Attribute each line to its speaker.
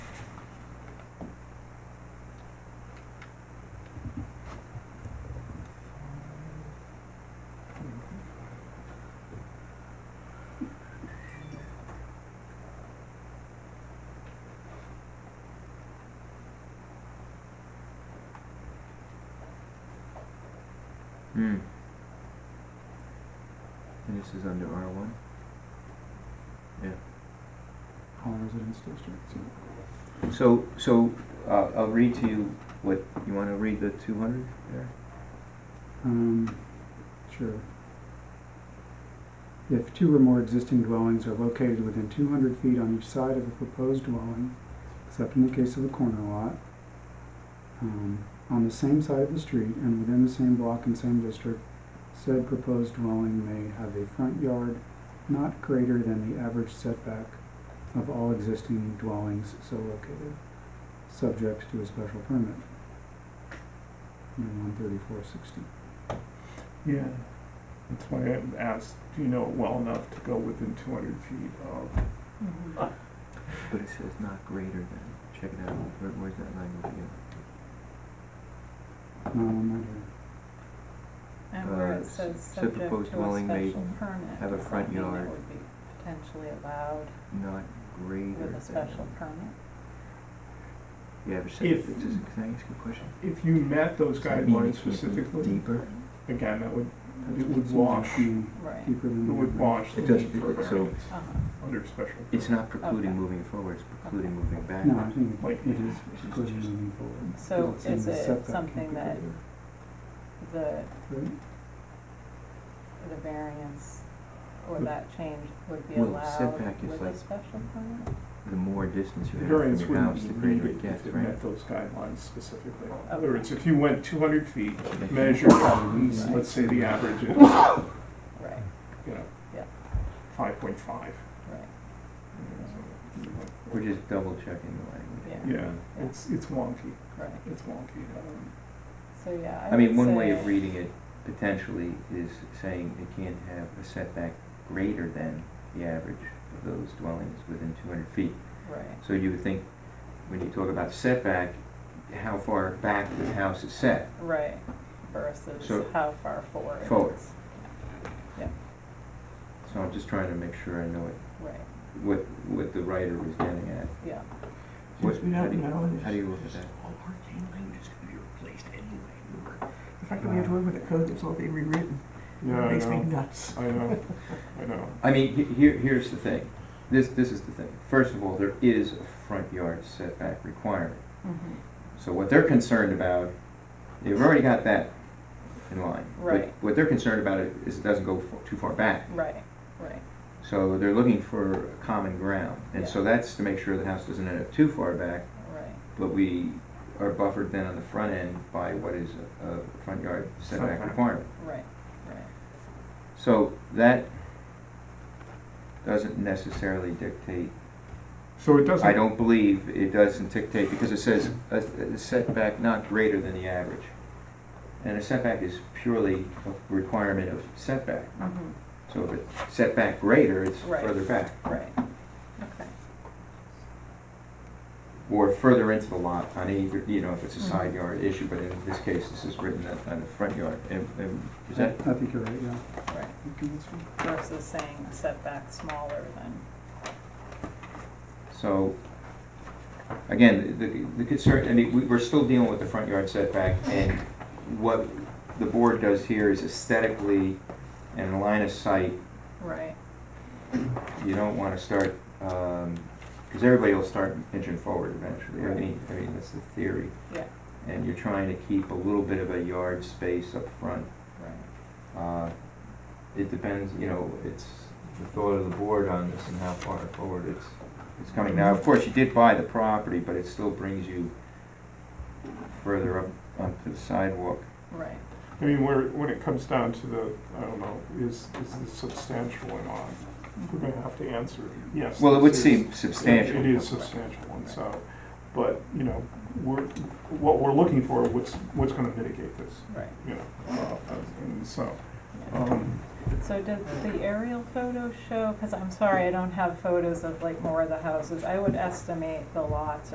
Speaker 1: Hmm. And this is under R one?
Speaker 2: all residence districts, yeah.
Speaker 1: So, so, uh, I'll read to you what, you wanna read the two hundred there?
Speaker 2: Um, sure. If two or more existing dwellings are located within two hundred feet on each side of a proposed dwelling, except in the case of a corner lot, um, on the same side of the street and within the same block and same district, said proposed dwelling may have a front yard not greater than the average setback of all existing dwellings so located, subject to a special permit. In one thirty-four sixty.
Speaker 3: Yeah, that's why I asked, do you know it well enough to go within two hundred feet of?
Speaker 1: Mm-hmm. But it says not greater than, check it out, Where, where's that language again?
Speaker 2: No, I'm not here.
Speaker 4: And where
Speaker 1: Uh,
Speaker 4: it
Speaker 1: s- said
Speaker 4: says subject to a
Speaker 1: proposed
Speaker 4: special
Speaker 1: dwelling may
Speaker 4: permit,
Speaker 1: have a
Speaker 4: does
Speaker 1: front
Speaker 4: that mean
Speaker 1: yard.
Speaker 4: it would be potentially allowed
Speaker 1: Not greater than.
Speaker 4: with a special permit?
Speaker 1: Yeah, but say,
Speaker 3: If-
Speaker 1: just, can I ask you a question?
Speaker 3: If you met those
Speaker 1: Does that mean
Speaker 3: guidelines
Speaker 1: it can't be
Speaker 3: specifically,
Speaker 1: Deeper?
Speaker 3: again, that would,
Speaker 2: That's
Speaker 3: it
Speaker 2: what
Speaker 3: would
Speaker 2: seems
Speaker 3: wash,
Speaker 2: to be
Speaker 4: Right,
Speaker 2: Deeper
Speaker 3: it
Speaker 2: than. the
Speaker 3: would
Speaker 2: river.
Speaker 3: wash the
Speaker 1: It does,
Speaker 3: need for a
Speaker 1: it- so-
Speaker 3: variance
Speaker 4: uh-huh,
Speaker 3: under special.
Speaker 1: It's not precluding
Speaker 4: Okay.
Speaker 1: moving forward, it's precluding moving
Speaker 2: No, I
Speaker 1: backwards.
Speaker 2: think
Speaker 3: Like-
Speaker 2: it is clearly moving forward.
Speaker 4: so
Speaker 2: It's in
Speaker 4: is
Speaker 2: the
Speaker 4: it
Speaker 2: setback
Speaker 4: something that
Speaker 2: configuration,
Speaker 4: the,
Speaker 2: right?
Speaker 4: the variance or
Speaker 3: Would-
Speaker 4: that change would be
Speaker 1: Well,
Speaker 4: allowed
Speaker 1: setback is
Speaker 4: with
Speaker 1: like-
Speaker 4: a special permit?
Speaker 1: The more distance you have
Speaker 3: The
Speaker 1: from
Speaker 3: variance
Speaker 1: your house, the
Speaker 3: wouldn't be
Speaker 1: greater
Speaker 3: needed
Speaker 1: it gets,
Speaker 3: if it
Speaker 1: right?
Speaker 3: met those guidelines specifically. In
Speaker 4: Okay.
Speaker 3: other words, if you went two hundred feet,
Speaker 1: Okay.
Speaker 3: measured from,
Speaker 4: Right.
Speaker 3: let's say the average is, you
Speaker 4: Right, Yeah.
Speaker 3: know, five point five.
Speaker 4: right,
Speaker 1: We're just double checking the language.
Speaker 4: Yeah.
Speaker 3: Yeah, it's, it's wonky,
Speaker 4: right,
Speaker 3: it's wonky. um,
Speaker 4: so yeah, I
Speaker 1: I
Speaker 4: would say.
Speaker 1: mean, one way of reading it potentially is saying it can't have a setback greater than the average of those dwellings within two hundred feet.
Speaker 4: Right,
Speaker 1: So you would think, when you talk about setback, how far back the house is set.
Speaker 4: right,
Speaker 1: So-
Speaker 4: versus how far forward.
Speaker 1: Forward.
Speaker 4: it's-
Speaker 1: So I'm just trying to make sure I know it,
Speaker 4: Right,
Speaker 1: what, what the writer was getting at.
Speaker 4: yeah,
Speaker 1: What-
Speaker 3: Since we
Speaker 1: how
Speaker 3: don't
Speaker 1: do you-
Speaker 3: know this-
Speaker 1: How do you look at that?
Speaker 5: All arcane language is gonna be replaced anyway. The fact
Speaker 2: that we have to work
Speaker 5: with a code that's all being rewritten,
Speaker 3: Yeah, I know.
Speaker 5: nuts.
Speaker 3: I know, I know.
Speaker 1: I mean, he- here, here's the thing. This, this is the thing. First of all, there is a front yard setback requirement. Mm-hmm.
Speaker 4: mhm,
Speaker 1: So what they're concerned about, they've already got that in line. But
Speaker 4: Right.
Speaker 1: What they're concerned about is it doesn't go f- too far back.
Speaker 4: right, right,
Speaker 1: So they're looking for common ground. And so that's to make sure the house doesn't end up too far back,
Speaker 4: right,
Speaker 1: but we are buffered then on the front end by what is a a front yard setback
Speaker 3: Setback.
Speaker 1: requirement.
Speaker 4: right, right.
Speaker 1: So that doesn't necessarily dictate
Speaker 3: So it doesn't.
Speaker 1: I don't believe it doesn't dictate, because it says a a setback not greater than the average. And a setback is purely a requirement of setback.
Speaker 4: Mhm,
Speaker 1: So if it's setback greater, it's
Speaker 4: Right.
Speaker 1: further back,
Speaker 4: Right, okay,
Speaker 1: or further into the lot on either, you know, if it's a
Speaker 4: Mhm.
Speaker 1: side yard issue, but in this case, this is written on- on the front yard. And- and Is that,
Speaker 2: Uh, I think you're right, yeah.
Speaker 4: right.
Speaker 2: Okay, that's fine.
Speaker 4: Versus saying setback smaller than,
Speaker 1: so, again, the the concern, I mean, we- we're still dealing with the front yard setback, and what the board does here is aesthetically and line of sight
Speaker 4: right,
Speaker 1: you don't want to start, because everybody will start inching forward eventually. I mean, I mean, that's the theory.
Speaker 4: Yeah.
Speaker 1: And you're trying to keep a little bit of a yard space up front.
Speaker 4: right,
Speaker 1: Uh, It depends, you know, it's the thought of the board on this and how far forward it's, it's coming. Now, of course, you did buy the property, but it still brings you further up onto the sidewalk.
Speaker 4: right,
Speaker 3: I mean, where, when it comes down to the, I don't know, is, is this substantial or not? We're
Speaker 4: mhm,
Speaker 3: gonna have to answer, yes.
Speaker 1: Well, it would
Speaker 3: this is-
Speaker 1: seem substantial.
Speaker 3: It is substantial, and so, but, you know, we're, what we're looking for, what's, what's gonna mitigate this,
Speaker 4: right.
Speaker 3: you know? uh, And so,
Speaker 4: yeah.
Speaker 3: um,
Speaker 4: So did the aerial photos show, because I'm sorry, I don't have photos of like more of the houses. I would estimate the lots